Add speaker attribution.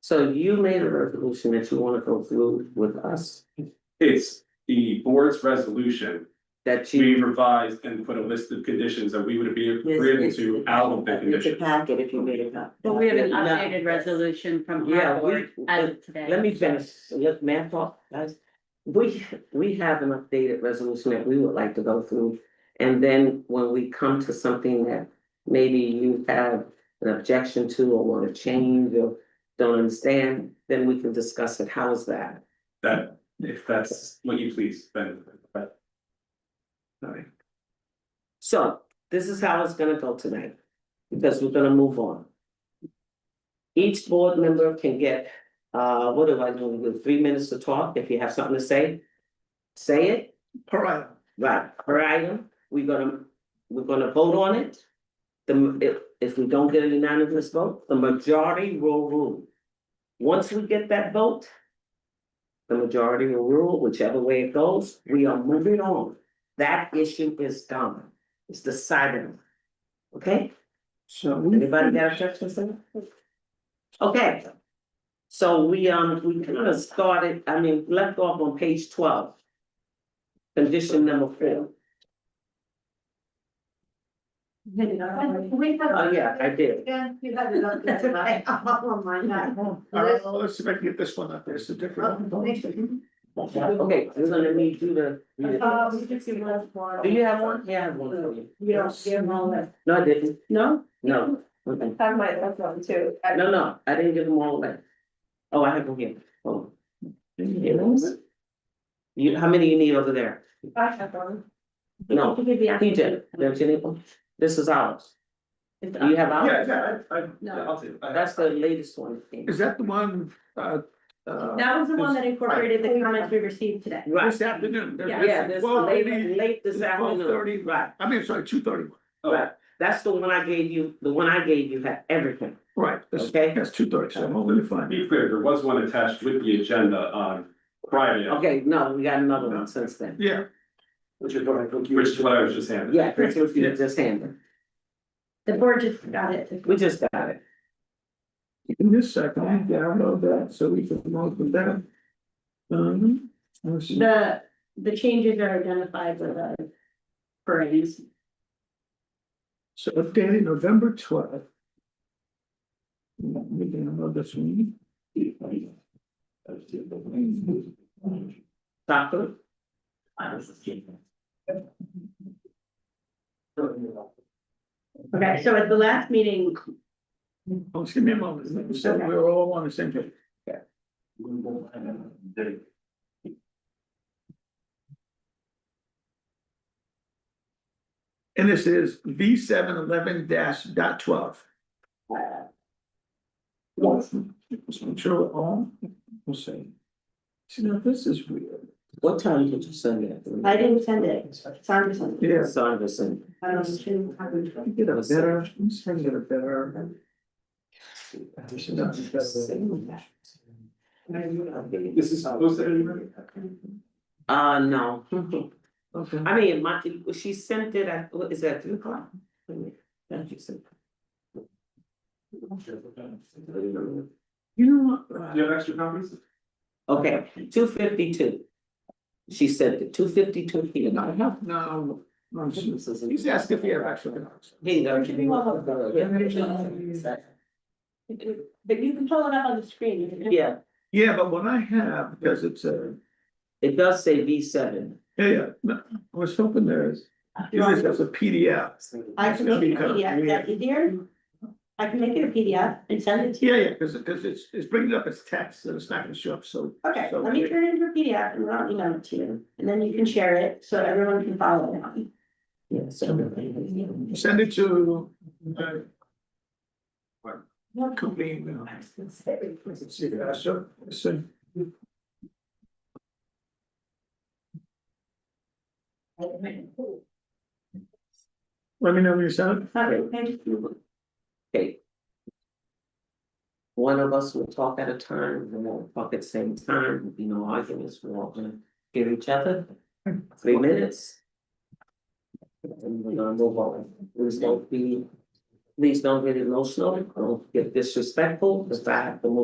Speaker 1: So you made a resolution that you wanna go through with us,
Speaker 2: It's the board's resolution,
Speaker 1: that you.
Speaker 2: we revised and put a list of conditions that we would be agreeable to out of the
Speaker 1: It's a
Speaker 2: condition.
Speaker 1: packet if you made it up.
Speaker 3: But we have an
Speaker 1: No.
Speaker 3: updated resolution from
Speaker 1: Yeah, we-
Speaker 3: our board as of today.
Speaker 1: Let me finish, let me talk, guys. We, we have an updated resolution that we would like to go through. And then when we come to something that maybe you have an objection to or wanna change or don't understand, then we can discuss it. How is that?
Speaker 2: That, if that's what you please, then, but. Alright,
Speaker 1: So this is how it's gonna go tonight, because we're gonna move on. Each board member can get, uh, what do I do, with three minutes to talk, if you have something to say, say it. Per item. Right, per item, we're gonna, we're gonna vote on it. The, if, if we don't get a unanimous vote, the majority will rule. Once we get that vote, the majority will rule, whichever way it goes, we are moving on. That issue is done. It's decided. Okay,
Speaker 4: So we,
Speaker 1: anybody got objections to that? Okay. So we, um, we kind of started, I mean, left off on page twelve. Condition number four.
Speaker 5: We have.
Speaker 1: Oh, yeah, I did.
Speaker 5: Again, you had it on this one. I'm on my neck.
Speaker 4: all right, well, let's see if I can get this one up, there's a
Speaker 2: Oh,
Speaker 4: different one.
Speaker 1: Okay, we're gonna need you to. read it.
Speaker 5: Uh, we just give us one.
Speaker 1: Do you have one? Yeah, I have one for you.
Speaker 5: You don't give them all that.
Speaker 1: No, I didn't.
Speaker 5: No?
Speaker 1: No. Mm-mm.
Speaker 5: I might have one too.
Speaker 1: No, no, I didn't give them all away. Oh, I have them here. Oh. You, how many you need over there?
Speaker 5: I have one.
Speaker 1: No, PJ, don't you need one? This is ours. You have ours?
Speaker 4: Yeah, yeah, I- I-
Speaker 3: No.
Speaker 2: do it.
Speaker 1: That's the latest one.
Speaker 4: is that the one, uh, uh,
Speaker 3: That was the one that incorporated the comments we received today.
Speaker 1: Right,
Speaker 4: this afternoon? There's-
Speaker 1: yeah, this
Speaker 4: Well,
Speaker 1: late,
Speaker 4: maybe-
Speaker 1: late this afternoon,
Speaker 4: 12:30.
Speaker 1: right,
Speaker 4: I mean, sorry, two thirty one,
Speaker 1: right. That's the one I gave you, the one I gave you had everything,
Speaker 4: right, that's,
Speaker 1: okay?
Speaker 4: that's two thirty, so I'm only
Speaker 2: To
Speaker 4: fine.
Speaker 2: be clear, there was one attached with the agenda on Friday,
Speaker 1: Okay, no, we got another one since then.
Speaker 4: Yeah,
Speaker 2: which is what I, which is what I was just handed.
Speaker 1: Yeah, that's what you just handed.
Speaker 3: The board just got it.
Speaker 1: We just got it.
Speaker 4: in this second, I download that, so we can open that. Um, let's see.
Speaker 3: The, the changes are identified with the parades.
Speaker 4: so updated November twelfth. Let me download this one.
Speaker 1: Doctor?
Speaker 3: Okay, so at the last meeting,
Speaker 4: Oh, Excuse me a moment, so we're all on the same page. And this is V seven eleven dash dot twelve. Let's make sure we're all, we'll see. See, now this is weird.
Speaker 1: What time did you send it?
Speaker 5: I didn't send it. It's on this one.
Speaker 4: Yeah,
Speaker 1: Sorry, I sent.
Speaker 5: I don't know. I haven't-
Speaker 4: I can get a better, I'm just trying to get a better. This is not better.
Speaker 2: This is posted anywhere?
Speaker 1: Uh, no.
Speaker 4: Okay.
Speaker 1: I mean, my, she sent it at, what is that, three o'clock? Thank you, sir.
Speaker 4: You know what? Uh,
Speaker 2: Do you have extra copies?
Speaker 1: Okay, two fifty-two. She sent it, two fifty-two here.
Speaker 4: No, no, no, no, he's he's asking if he have actual dogs.
Speaker 1: Here you go.
Speaker 5: Give me one of But you can pull it up on the screen. You can-
Speaker 1: Yeah,
Speaker 4: Yeah, but what I have, because it's a,
Speaker 1: it does say V seven.
Speaker 4: yeah, yeah, no, I was hoping there is,
Speaker 5: You want-
Speaker 4: this is a PDF.
Speaker 5: I can make a PDF, that's easier. I can make it a PDF and send it to you.
Speaker 4: Yeah, yeah, because because it's it's bringing up its text, and it's not gonna show up, so.
Speaker 5: Okay,
Speaker 4: so-
Speaker 5: let me turn it into a PDF and I'll email it to you, and then you can share it so everyone can follow it.
Speaker 1: Yes.
Speaker 4: Send it to. uh,
Speaker 5: What
Speaker 4: Company email. Let's see, uh, so, so, let me know when you send it.
Speaker 1: Okay. One of us will talk at a time, we won't talk at the same time, There'll be no arguments, we're all gonna hear each other. Three minutes. And we're gonna move on, please don't be, please don't get emotional, don't get disrespectful, because I have to move